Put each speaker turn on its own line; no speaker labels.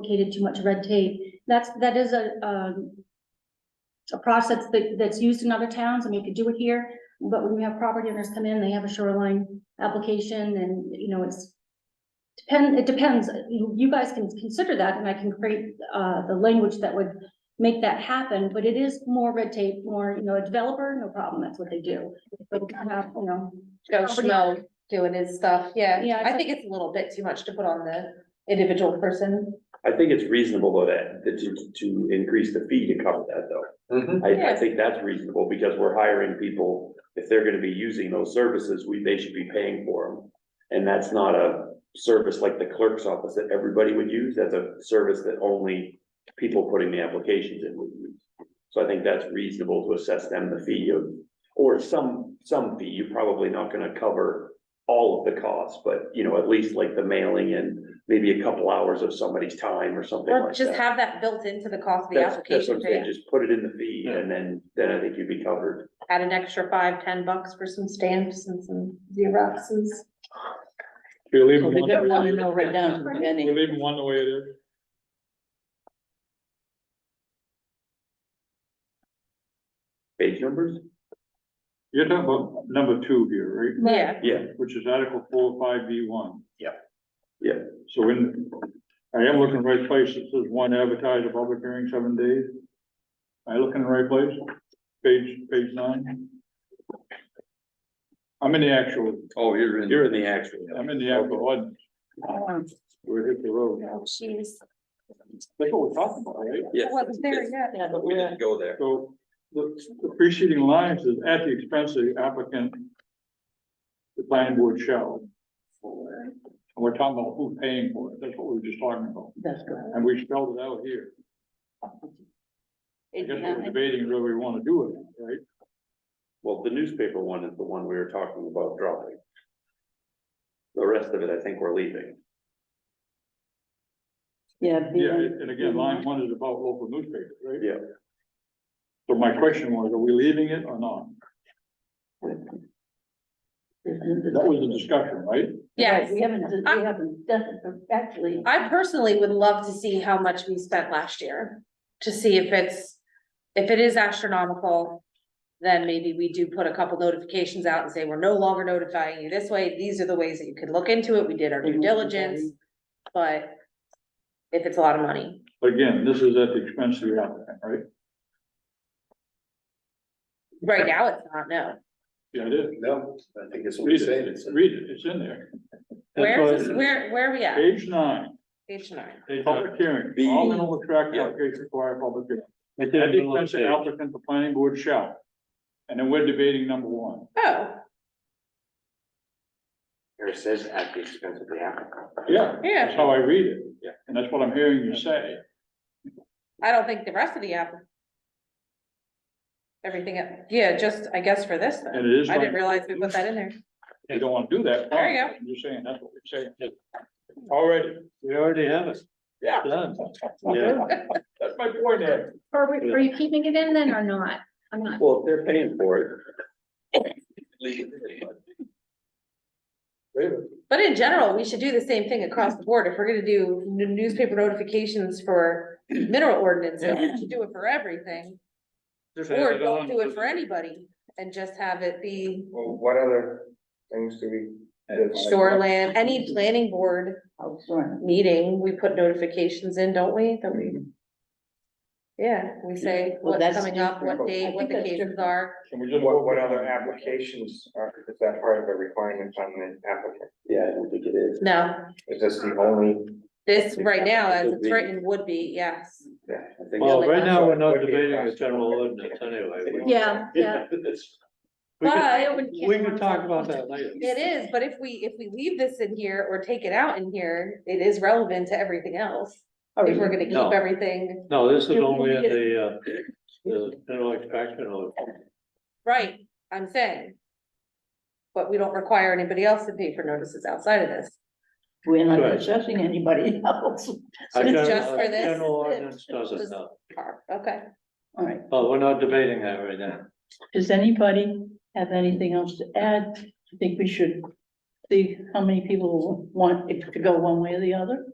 complicated, too much red tape. That's, that is a, um, a process that, that's used in other towns, I mean, you could do it here, but when we have property owners come in, they have a shoreline application and, you know, it's depend, it depends, you, you guys can consider that and I can create, uh, the language that would make that happen, but it is more red tape, more, you know, a developer, no problem, that's what they do. But, uh, you know,
Joe Schmo doing his stuff, yeah.
Yeah,
I think it's a little bit too much to put on the individual person.
I think it's reasonable though that, that to, to increase the fee to cover that though. I, I
Yeah.
think that's reasonable because we're hiring people, if they're gonna be using those services, we, they should be paying for them. And that's not a service like the clerk's office that everybody would use, that's a service that only people putting the applications in would use. So I think that's reasonable to assess them the fee of, or some, some fee, you're probably not gonna cover all of the costs, but you know, at least like the mailing and maybe a couple hours of somebody's time or something
Or
like
just
that.
have that built into the cost of the
That's, that's
application,
what I'm saying,
to
just put it in the fee and then, then I think you'd be covered.
add an extra five, ten bucks for some stamps and some Xeroxes.
We're leaving
Well, They
one,
don't want to
we're
know right down to the penny.
leaving one the way it is.
Page numbers?
You're talking about number two here,
Yeah,
Yeah,
right? Which is Article four, oh five, B one.
Yep. Yeah.
So in, I am looking right place. It says one advertise a public hearing seven days. I look in the right place? Page, page nine? I'm in the actual,
oh, you're in. You're in the actual.
I'm in the actual one.
Um,
We're hit the road. That's what we're talking about, right?
Yes.
wasn't there yet.
Yeah, but
We
we're,
didn't go there.
So the the preceding line is at the expense of the applicant. The planning board shall. And we're talking about who's paying for it. That's what we were just talking about.
that's good.
And we spelled it out here. I guess we're debating whether we want to do it, right?
Well, the newspaper one is the one we were talking about dropping. The rest of it, I think we're leaving.
Yeah. be-
Yeah, and again, line one is about local newspapers, right?
Yeah.
So my question was, are we leaving it or not? That was the discussion, right?
Yes.
Right, We haven't, we haven't done, it, actually,
I personally would love to see how much we spent last year, to see if it's, if it is astronomical. Then maybe we do put a couple notifications out and say, we're no longer notifying you this way, these are the ways that you could look into it, we did our due diligence, but. If it's a lot of money,
But Again, this is at the expense of the applicant, right?
right now it's not, no,
Yeah, it is.
No, I think it's
Read it, read it, it's in there.
where is,
That's
this-
why-
where, where are we at?
Page nine.
Page nine,
Public hearing, all mineral tract applications require a public hearing. At the expense of applicant, the planning board shall. And then we're debating number one.
oh,
Here it says at the expense of the applicant.
Yeah. That's
yeah,
how I read it.
Yeah.
And that's what I'm hearing you say.
I don't think the rest of the app. Everything, else- yeah, just, I guess for this
And
then,
it is.
I didn't
like,
realize we put that in there.
You don't want to do that.
There you go.
I'm Just saying, that's what we're saying. Already.
We already have it.
Yeah.
Done.
That's my point there.
are, we- are you keeping it in then or not? I'm not,
Well, if they're paying for it. leave it.
Wait a minute.
But in general, we should do the same thing across the board. If we're gonna do n- newspaper notifications for mineral ordinances, we should do it for everything.
Just add
Or
it
don't
on.
do it for anybody and just have it be
Well, what other things do we?
shoreland, any planning board
oh, sorry.
meeting, we put notifications in, don't we? That we. Yeah, we say
Well,
what's
that's
coming up, what
different.
date,
I
what
think
the
that's
cases
different.
are.
Can we just?
What, what other applications are, is that part of the requirements on the applicant?
Yeah, I don't think it is.
No,
Is this the only?
this right now, as
Would
it's
be.
written, would be, yes.
I think-
Well, right now, we're not debating the general ordinance anyway. We-
yeah, yeah.
We could,
But
we could talk about that later.
It is, but if we, if we leave this in here or take it out in here, it is relevant to everything else.
Oh,
If we're gonna
No.
keep everything,
No, this is only at the, uh, the general extraction of,
right, I'm saying. But we don't require anybody else to pay for notices outside of this.
We're not
Right.
assessing anybody else.
our
it's
general-
just for
our
this?
general ordinance doesn't
Just-
know.
Okay,
All right,
Well, we're not debating that right now.
does anybody have anything else to add? I think we should see how many people want it to go one way or the other.